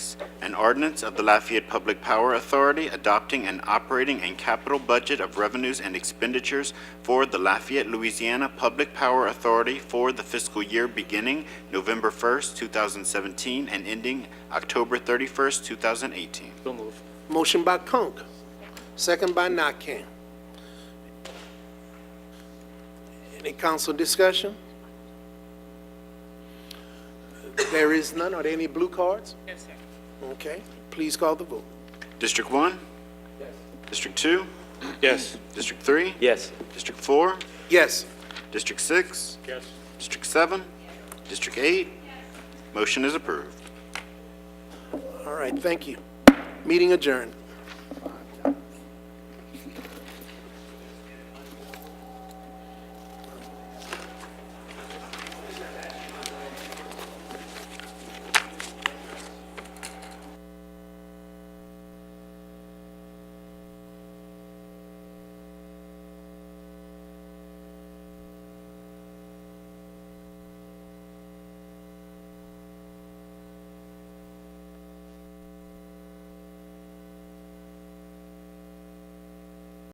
Six, an ordinance of the Lafayette Public Power Authority adopting an operating and capital budget of revenues and expenditures for the Lafayette, Louisiana Public Power Authority for the fiscal year beginning November 1st, 2017, and ending October 31st, 2018. So move. Motion by Conk, second by Nakane. Any council discussion? There is none. Are there any blue cards? Yes, sir. Okay, please call the vote. District 1? District 2? Yes. District 3? Yes. District 4? Yes, District 6? Yes. District 7? District 8? Motion is approved. all right, thank you. Meeting adjourned.